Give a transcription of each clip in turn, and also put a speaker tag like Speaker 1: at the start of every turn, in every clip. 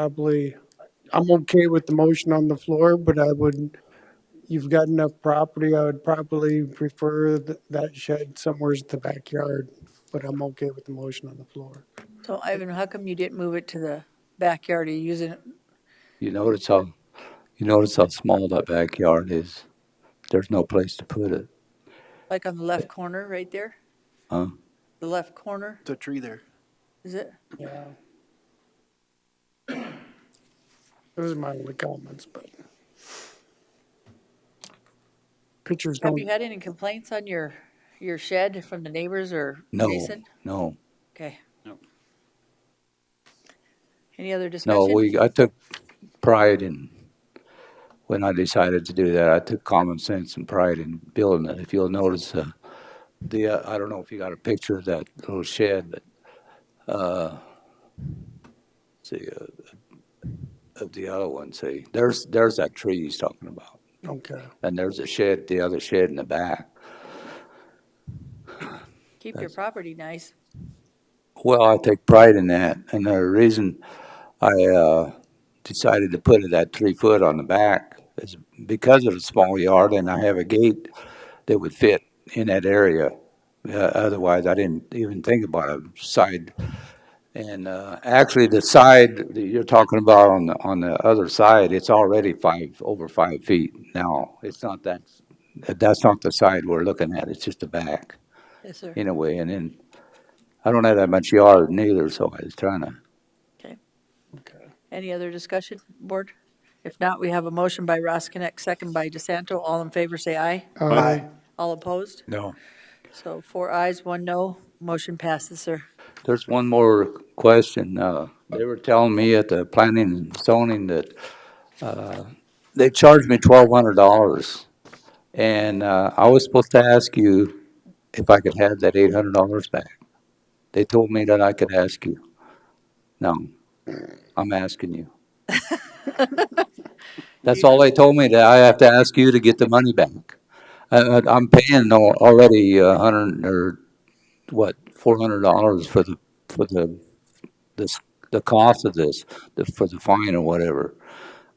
Speaker 1: probably, I'm okay with the motion on the floor, but I would, you've got enough property, I would probably prefer th- that shed somewhere in the backyard, but I'm okay with the motion on the floor.
Speaker 2: So Ivan, how come you didn't move it to the backyard? Are you using it?
Speaker 3: You notice how, you notice how small that backyard is. There's no place to put it.
Speaker 2: Like on the left corner, right there?
Speaker 3: Huh?
Speaker 2: The left corner,
Speaker 4: the tree there.
Speaker 2: is it?
Speaker 1: Yeah. Those are my only comments, but. Pictures
Speaker 2: Have
Speaker 1: don't,
Speaker 2: you had any complaints on your, your shed from the neighbors or
Speaker 3: No,
Speaker 2: Jason?
Speaker 3: no,
Speaker 2: Okay.
Speaker 4: No.
Speaker 2: Any other
Speaker 3: no.
Speaker 2: discussion?
Speaker 3: We I took pride in when I decided to do that. I took common sense and pride in building it. If you'll notice, uh, the uh, I don't know if you got a picture of that little shed, but uh, see uh, of the other one. See, there's there's that tree he's talking about.
Speaker 1: okay.
Speaker 3: And there's a shed, the other shed in the back.
Speaker 2: Keep your property nice.
Speaker 3: Well, I take pride in that. And the reason I uh, decided to put it at three foot on the back is because of the small yard and I have a gate that would fit in that area. Uh, otherwise, I didn't even think about a side. And uh, actually, the side that you're talking about on the, on the other side, it's already five, over five feet now. It's not that, that's not the side we're looking at. It's just the back
Speaker 2: Yes, sir.
Speaker 3: anyway, and then I don't have that much yard neither, so I was trying to.
Speaker 2: Any other discussion, board? If not, we have a motion by Roskinek, second by DeSanto. All in favor, say aye.
Speaker 1: Aye.
Speaker 2: All opposed?
Speaker 3: No.
Speaker 2: So four ayes, one no. Motion passes, sir.
Speaker 3: There's one more question. Uh, they were telling me at the planning and zoning that, uh, they charged me twelve hundred dollars. And, uh, I was supposed to ask you if I could have that eight hundred dollars back. They told me that I could ask you. No, I'm asking you. That's all they told me, that I have to ask you to get the money back. I, I- I'm paying al- already a hundred or, what, four hundred dollars for the, for the, this, the cost of this, the, for the fine or whatever.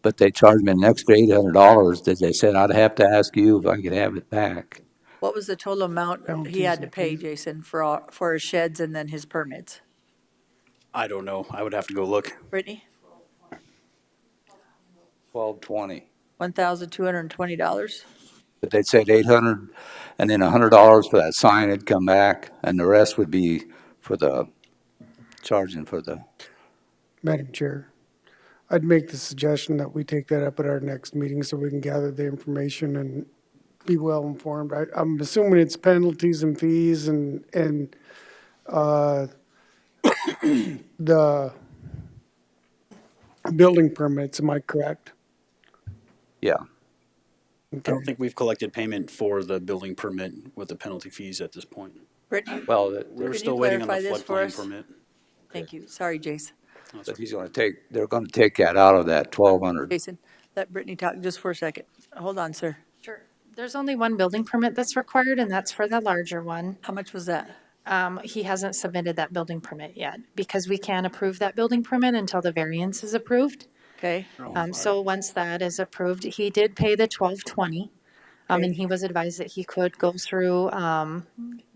Speaker 3: But they charged me an extra eight hundred dollars, that they said I'd have to ask you if I could have it back.
Speaker 2: What was the total amount he
Speaker 1: Penalties
Speaker 2: had to
Speaker 1: and
Speaker 2: pay,
Speaker 1: fees.
Speaker 2: Jason, for, all- for his sheds and then his permits?
Speaker 4: I don't know. I would have to go look.
Speaker 2: Brittany,
Speaker 3: Twelve twenty.
Speaker 2: one thousand two hundred and twenty dollars?
Speaker 3: But they said eight hundred, and then a hundred dollars for that sign had come back, and the rest would be for the, charging for the
Speaker 1: Madam Chair, I'd make the suggestion that we take that up at our next meeting so we can gather the information and be well informed. I, I'm assuming it's penalties and fees and, and, uh, the building permits, am I correct?
Speaker 3: Yeah,
Speaker 4: I
Speaker 1: Okay.
Speaker 4: don't think we've collected payment for the building permit with the penalty fees at this point.
Speaker 2: Brittany,
Speaker 3: well,
Speaker 4: We
Speaker 3: that-
Speaker 4: We're
Speaker 2: Could
Speaker 4: still
Speaker 2: you
Speaker 4: waiting on the
Speaker 2: clarify this for us?
Speaker 4: floodplain permit.
Speaker 2: thank you. Sorry, Jason.
Speaker 3: but he's gonna take, they're gonna take that out of that twelve hundred.
Speaker 2: Jason, let Brittany talk just for a second. Hold on, sir.
Speaker 5: Sure. There's only one building permit that's required, and that's for the larger one.
Speaker 2: How much was that?
Speaker 5: Um, He hasn't submitted that building permit yet, because we can't approve that building permit until the variance is approved.
Speaker 2: Okay,
Speaker 5: Um, So once that is approved, he did pay the twelve twenty, Um, and he was advised that he could go through um,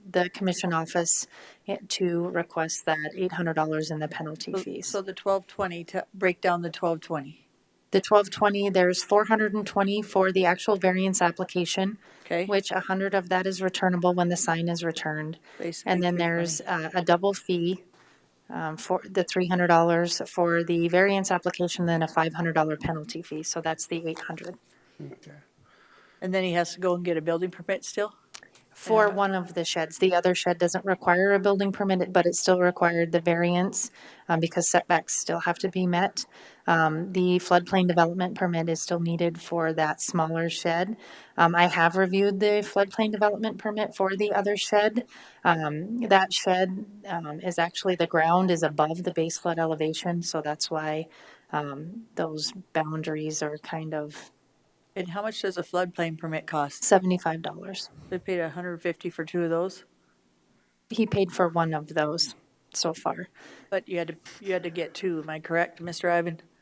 Speaker 5: the commission office eh, to request that eight hundred dollars in the penalty fees.
Speaker 2: so the twelve twenty, to break down the twelve twenty,
Speaker 5: The twelve twenty, there's four hundred and twenty for the actual variance application,
Speaker 2: okay?
Speaker 5: which a hundred of that is returnable when the sign is returned.
Speaker 2: Basically
Speaker 5: And then
Speaker 2: 320.
Speaker 5: there's uh, a double fee um, for the three hundred dollars for the variance application, then a five hundred dollar penalty fee. So that's the eight hundred
Speaker 2: And then he has to go and get a building permit still?
Speaker 5: for one of the sheds. The other shed doesn't require a building permit, but it still required the variance um, because setbacks still have to be met. Um, The floodplain development permit is still needed for that smaller shed. Um, I have reviewed the floodplain development permit for the other shed. Um, That shed um, is actually, the ground is above the base flood elevation, so that's why um, those boundaries are kind of
Speaker 2: And how much does a floodplain permit cost?
Speaker 5: seventy-five dollars.
Speaker 2: They paid a hundred and fifty for two of those?
Speaker 5: He paid for one of those. so far.
Speaker 2: But you had to, you had to get two, am I correct, Mr. Ivan?